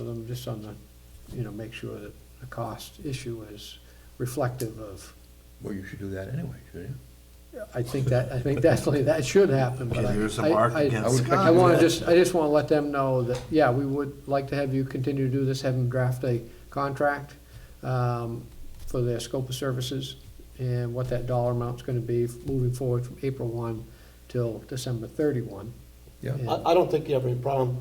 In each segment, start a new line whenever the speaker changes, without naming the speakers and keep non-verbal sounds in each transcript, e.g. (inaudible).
um, just on the, you know, make sure that the cost issue is reflective of,
Well, you should do that anyway, shouldn't you?
I think that, I think definitely that should happen, but I.
There's some
I-
art
I-
against
I would-
Scott.
I wanna just, I just wanna let them know that, yeah, we would like to have you continue to do this, have them draft a contract, um, for their scope of services, and what that dollar amount's gonna be moving forward from April one till December thirty-one.
Yeah.
I, I don't think you have any problem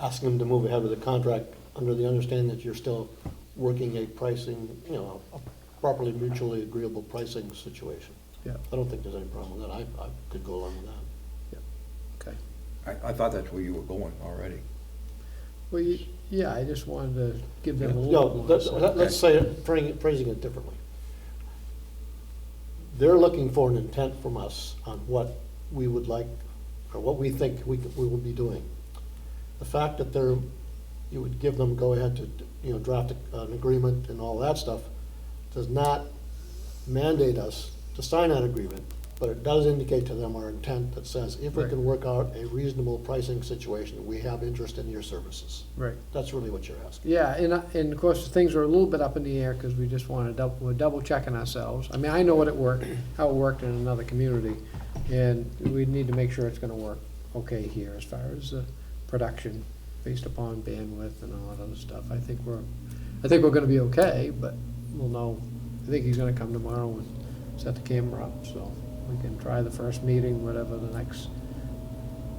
asking them to move ahead with the contract under the understanding that you're still working a pricing, you know, a properly mutually agreeable pricing situation.
Yeah,
I don't think there's any problem with that. I, I could go along with that.
okay.
I, I thought that's where you were going already.
Well, you- yeah, I just wanted to give them a little
No,
more.
let's,
insight.
let's say, it- phrasing it- phrasing it differently. They're looking for an intent from us on what we would like, or what we think we, could- we will be doing. The fact that they're, you would give them, go ahead to, you know, draft an agreement and all that stuff, does not mandate us to sign that agreement, but it does indicate to them our intent that says, if we
Right.
can work out a reasonable pricing situation, we have interest in your services.
Right.
That's really what you're asking.
Yeah, and, I- and of course, things are a little bit up in the air because we just want to double, we're double checking ourselves. I mean, I know what it worked, how it worked in another community, and we need to make sure it's going to work okay here as far as the production based upon bandwidth and all that other stuff. I think we're, I think we're going to be okay, but we'll know, I think he's going to come tomorrow and set the camera up, so we can try the first meeting, whatever the next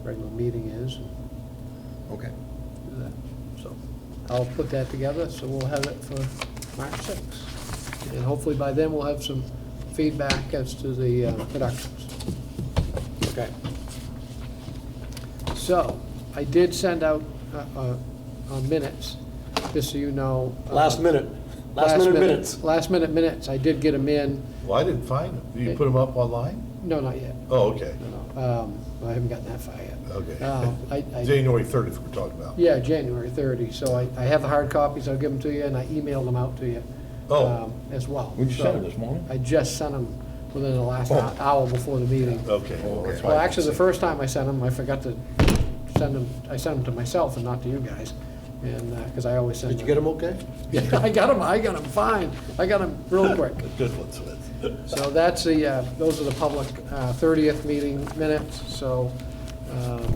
regular meeting is, and
Okay.
do that. So I'll put that together, so we'll have it for March sixth. And hopefully by then, we'll have some feedback as to the uh, productions. Okay. So I did send out uh, uh, uh, minutes, just so you know. uh,
Last minute, last minute
minute-
minutes.
Last minute minutes. I did get them in.
Well, I didn't find them. You put them up online?
No, not yet.
Oh, okay,
No, no. Um, I haven't gotten that far yet.
okay.
Um, I- I-
(laughs) January thirtieth we're talking about.
Yeah, January 30, so I, I have the hard copies, I'll give them to you, and I emailed them out to you.
Oh.
um, As well.
Would you
So,
send it this morning?
I just sent them within the last hou- hour before the meeting.
Oh, Okay. well, that's why I
Well,
didn't
actually, the
see.
first time I sent them, I forgot to send them, I sent them to myself and not to you guys, and, because I always send
Did
them. (laughs)
you get them okay?
Yeah, I got them, I got them fine, I got them real quick.
The good ones
(laughs)
with.
So that's the, uh, those are the public uh, 30th meeting minutes, so um,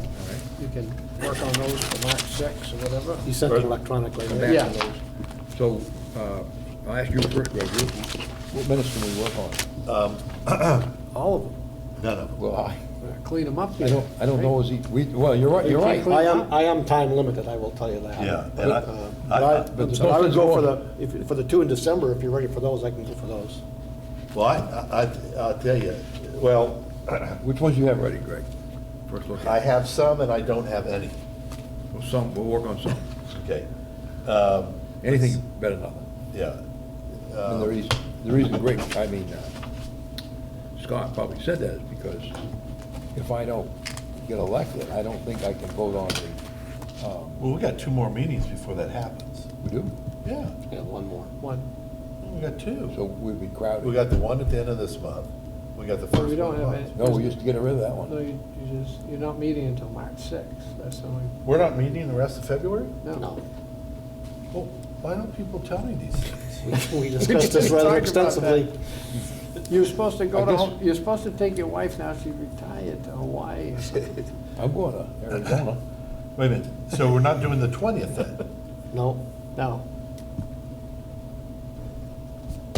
you can work on those for March 6 or whatever.
You sent it electronically.
Come
right?
Yeah.
back to those. So, uh, I'll ask you first, Greg, you- what minutes can we work on?
All of them. Uh,
None of them.
Well, I,
Clean them up.
I don't, I don't know, is he, we, well, you're right, you're
We
right.
can't
I am, I am time limited, I will tell you that. Uh,
Yeah,
Uh,
and I-
But
I-
I, but
I-
I would go for the, if, for the two in December, if you're ready for those, I can go
(laughs)
for those.
Well, I, I, I'll tell you, well, (clears throat)
Which ones you have ready, Greg? First look
I
at,
have some and I don't have any,
well, some, we'll work on some.
okay? Um,
Anything better than nothing.
Yeah,
And the reason, the reason Greg, I mean, uh, Scott probably said that is because if I don't get elected, I don't think I can vote on the, um,
well, we got two more meetings before that happens.
we do,
Yeah,
Yeah, one more.
One,
we got
so
two.
we'd be
We
crowded.
got the one at the end of this month, we got the first
No,
one.
we don't have
in March.
any.
No, we used to get rid of that
no,
one.
you, you just, you're not meeting until March sixth, that's the only,
We're not meeting the rest of February?
no.
No,
Well, why don't people tell me these things?
we- we discussed this rather
We just talked about
extensively.
You're supposed to go
I guess-
to, you're supposed to take your wife now, she's retired to Hawaii. or something.
(laughs) I'm going to Arizona.
Wait a minute, so we're not doing the twentieth (laughs) then?
No,
No.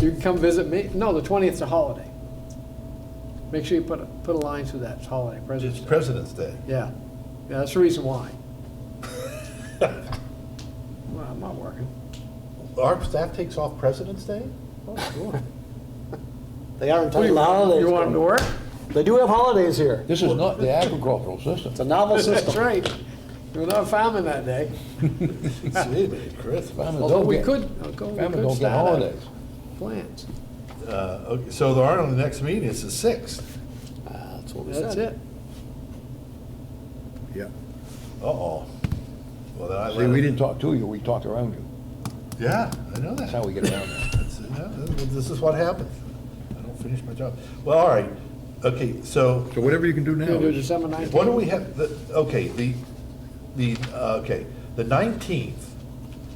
You can come visit me, no, the twentieth's a holiday. Make sure you put, a- put a line through that, it's holiday, President's
It's
Day.
President's Day.
Yeah, yeah, that's the reason why. Well, I'm not working.
Our staff takes off President's Day?
Oh,
(laughs)
sure.
they are
What do
entitled
you
to
want,
holidays.
you want 'em to work?
They do have holidays here.
This is not the agricultural system.
It's
(laughs)
a novel
That's
system.
right. We're not farming that day.
Gee, but Christmas.
Farmers
Although
don't
we
get-
could, although we
Farmers
could
don't get
start out
holidays.
plants.
Uh, okay, So there are on the next meeting, it's the sixth.
Ah, That's what we
That's
said.
it.
Yeah.
Uh-oh. Well, then I
See, we
let-
didn't talk to you, we talked around you.
Yeah, I know
That's how
that.
we get around it.
That's- uh, yeah, This is what happens. I don't finish my job. Well, all right, okay, so
So whatever you can do now.
Gonna do
is-
December nineteenth.
What do we have, the, okay, the, the, uh, okay, the nineteenth